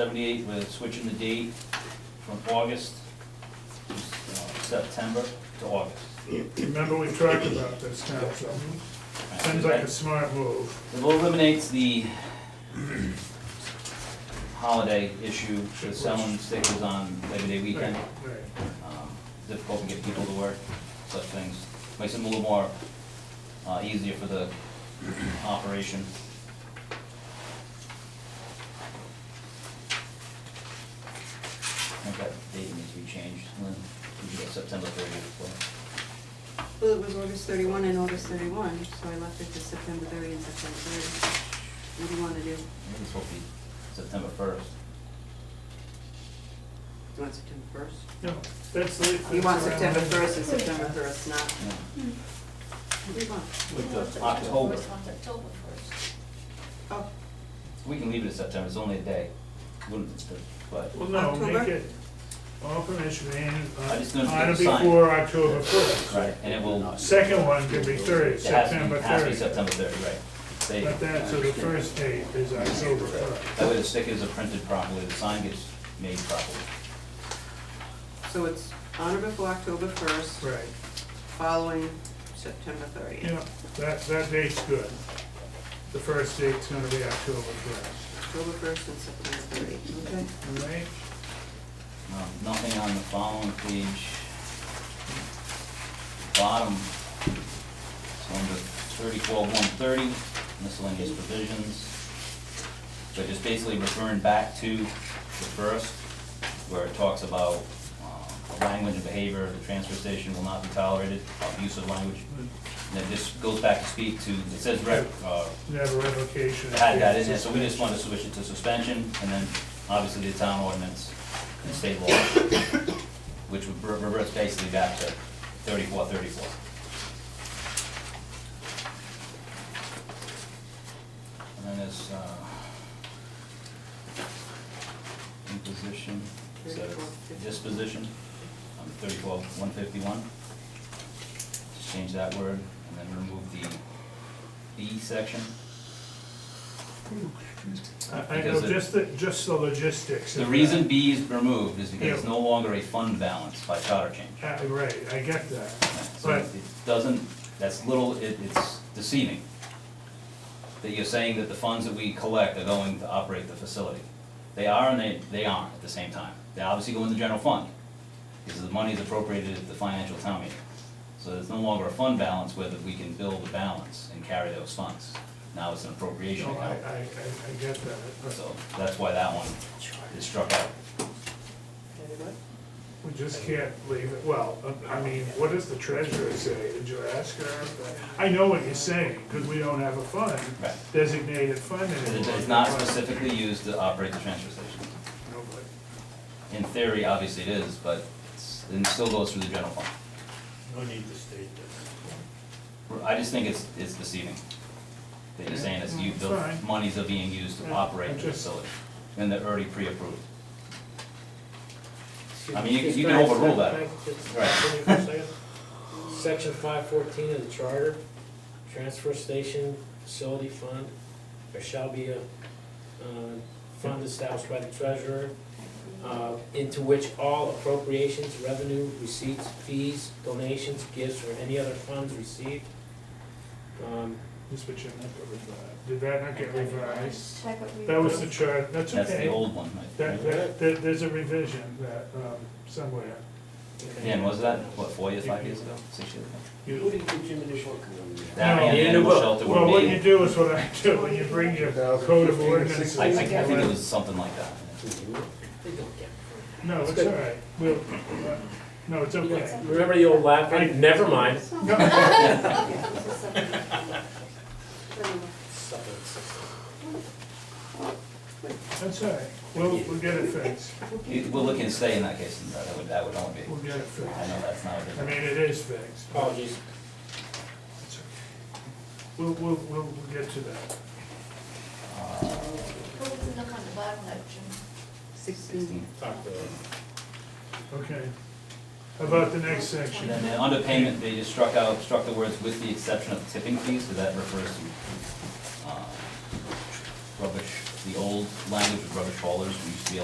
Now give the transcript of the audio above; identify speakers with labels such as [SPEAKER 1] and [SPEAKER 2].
[SPEAKER 1] 78, we're switching the date from August to uh, September to August.
[SPEAKER 2] Remember, we talked about this now, so seems like a smart move.
[SPEAKER 1] It eliminates the holiday issue with selling stickers on Labor Day weekend.
[SPEAKER 2] Right, right.
[SPEAKER 1] Um, Difficult to get people to work, such things. Makes it a little more uh, easier for the operation. I think that date needs to be changed, Lynn. We should go September 30th.
[SPEAKER 3] Well, it was August thirty-one and August thirty-one, so I left it to September thirty and September thirty. What do you wanna do?
[SPEAKER 1] I think it's supposed to be September 1st.
[SPEAKER 3] Do you want September first?
[SPEAKER 2] No, that's the.
[SPEAKER 3] You
[SPEAKER 2] that's
[SPEAKER 3] want
[SPEAKER 2] around
[SPEAKER 3] September
[SPEAKER 2] it.
[SPEAKER 3] first and September first, not,
[SPEAKER 1] yeah.
[SPEAKER 3] what do you want?
[SPEAKER 1] With the October,
[SPEAKER 4] October first.
[SPEAKER 3] Oh,
[SPEAKER 1] we can leave it at September, it's only a day, wouldn't it, but,
[SPEAKER 2] Well, no, make
[SPEAKER 3] October?
[SPEAKER 2] it all permission and
[SPEAKER 1] I just noticed
[SPEAKER 2] on or
[SPEAKER 1] it's signed.
[SPEAKER 2] before October first.
[SPEAKER 1] right, and it will, it
[SPEAKER 2] Second one could be thirty,
[SPEAKER 1] has to
[SPEAKER 2] September
[SPEAKER 1] be, has to be
[SPEAKER 2] thirty.
[SPEAKER 1] September 30th, right. There you
[SPEAKER 2] But
[SPEAKER 1] go.
[SPEAKER 2] that, so the first date is October first.
[SPEAKER 1] That way the stickers are printed properly, the sign gets made properly.
[SPEAKER 3] so it's on or before October first,
[SPEAKER 2] Right,
[SPEAKER 3] following September thirtieth.
[SPEAKER 2] yeah, that, that date's good. The first date's gonna be October first,
[SPEAKER 3] October first and September thirtieth, okay?
[SPEAKER 2] all right?
[SPEAKER 1] Um, Nothing on the following page. Bottom, so under thirty-four, one thirty, miscellaneous provisions. So just basically referring back to the first, where it talks about, um, the language and behavior of the transfer station will not be tolerated, abusive language. And then this goes back to speak to, it says rec, uh,
[SPEAKER 2] Never revocation.
[SPEAKER 1] had that in there, so we just wanted to switch it to suspension, and then obviously the town ordinance and state law, which would re- reverse basically back to thirty-four, thirty-four. And then there's, uh, imposition, is that
[SPEAKER 3] 34.
[SPEAKER 1] disposition, on thirty-four, one fifty-one. Just change that word, and then remove the B section.
[SPEAKER 2] I I know,
[SPEAKER 1] Because it-
[SPEAKER 2] just the, just the logistics.
[SPEAKER 1] The
[SPEAKER 2] of
[SPEAKER 1] reason
[SPEAKER 2] that.
[SPEAKER 1] B is removed is because it's
[SPEAKER 2] Yeah.
[SPEAKER 1] no longer a fund balance by charter change.
[SPEAKER 2] Uh, Right, I get that.
[SPEAKER 1] So
[SPEAKER 2] Right.
[SPEAKER 1] it doesn't, that's little, it, it's deceiving. That you're saying that the funds that we collect are going to operate the facility. They are and they, they aren't at the same time. They obviously go in the general fund, because the money is appropriated at the financial town meeting. So there's no longer a fund balance whether we can build a balance and carry those funds. Now it's an appropriation
[SPEAKER 2] No, I,
[SPEAKER 1] account.
[SPEAKER 2] I, I I get that.
[SPEAKER 1] So that's why that one is struck out.
[SPEAKER 3] Everybody?
[SPEAKER 2] We just can't leave it, well, I mean, what does the treasurer say? Did you ask her? I know what you're saying, because we don't have a fund,
[SPEAKER 1] Right.
[SPEAKER 2] designated fund anymore.
[SPEAKER 1] It is not specifically used to operate the transfer station.
[SPEAKER 2] No, but-
[SPEAKER 1] In theory, obviously it is, but it's- it still goes through the general fund.
[SPEAKER 5] No need to state this.
[SPEAKER 1] I just think it's, it's deceiving. That you're saying it's, you,
[SPEAKER 2] Mm-hmm. It's
[SPEAKER 1] the
[SPEAKER 2] fine.
[SPEAKER 1] monies are being used to
[SPEAKER 2] Yeah,
[SPEAKER 1] operate
[SPEAKER 2] I
[SPEAKER 1] the
[SPEAKER 2] just-
[SPEAKER 1] facility, and they're already pre-approved. I mean, you- you can overrule that.
[SPEAKER 6] Can I just-
[SPEAKER 1] Right.
[SPEAKER 6] can you for a second? Section five fourteen of the charter, transfer station facility fund, there shall be a, uh, fund established by the treasurer, uh, into which all appropriations, revenue, receipts, fees, donations, gifts, or any other funds received. Um,
[SPEAKER 2] This what you meant to revise. Did that not get revised?
[SPEAKER 4] Check what we.
[SPEAKER 2] That was the chart, that's
[SPEAKER 1] That's the
[SPEAKER 2] okay.
[SPEAKER 1] old one, I
[SPEAKER 2] That,
[SPEAKER 1] think.
[SPEAKER 2] that, there- there's a revision that, um, somewhere.
[SPEAKER 6] okay.
[SPEAKER 1] Dan, was that, what, four years, five years ago, six years ago?
[SPEAKER 2] You-
[SPEAKER 5] did you give Jim additional cover?
[SPEAKER 1] That
[SPEAKER 2] No.
[SPEAKER 1] and the
[SPEAKER 6] Yeah,
[SPEAKER 1] animal
[SPEAKER 6] well-
[SPEAKER 1] shelter
[SPEAKER 2] Well,
[SPEAKER 1] were
[SPEAKER 2] what you
[SPEAKER 1] made,
[SPEAKER 2] do is what I do, when you bring your code of ordinances.
[SPEAKER 1] I, I I think it was something like that.
[SPEAKER 6] They don't get it.
[SPEAKER 2] No, it's all right, we'll, uh, no, it's okay.
[SPEAKER 6] Remember the old Latin, never mind.
[SPEAKER 2] No, That's all right, we'll, we'll get it fixed,
[SPEAKER 1] You- We'll look and stay in that case, and that would, that would only be,
[SPEAKER 2] we'll get
[SPEAKER 1] I
[SPEAKER 2] it fixed.
[SPEAKER 1] know that's not
[SPEAKER 2] I
[SPEAKER 1] what
[SPEAKER 2] mean,
[SPEAKER 1] it
[SPEAKER 2] it is fixed.
[SPEAKER 6] Apologies.
[SPEAKER 2] It's okay. We'll, we'll, we'll, we'll get to that.
[SPEAKER 1] is.
[SPEAKER 4] What was the look on the bottom of
[SPEAKER 3] Sixteen.
[SPEAKER 6] Talk to them.
[SPEAKER 2] Okay. How About the next
[SPEAKER 1] And
[SPEAKER 2] section,
[SPEAKER 1] then the underpayment, they just struck out, struck the words with the exception of tipping fees, because that refers to uh, rubbish the old language of rubbish haulers, we used to be able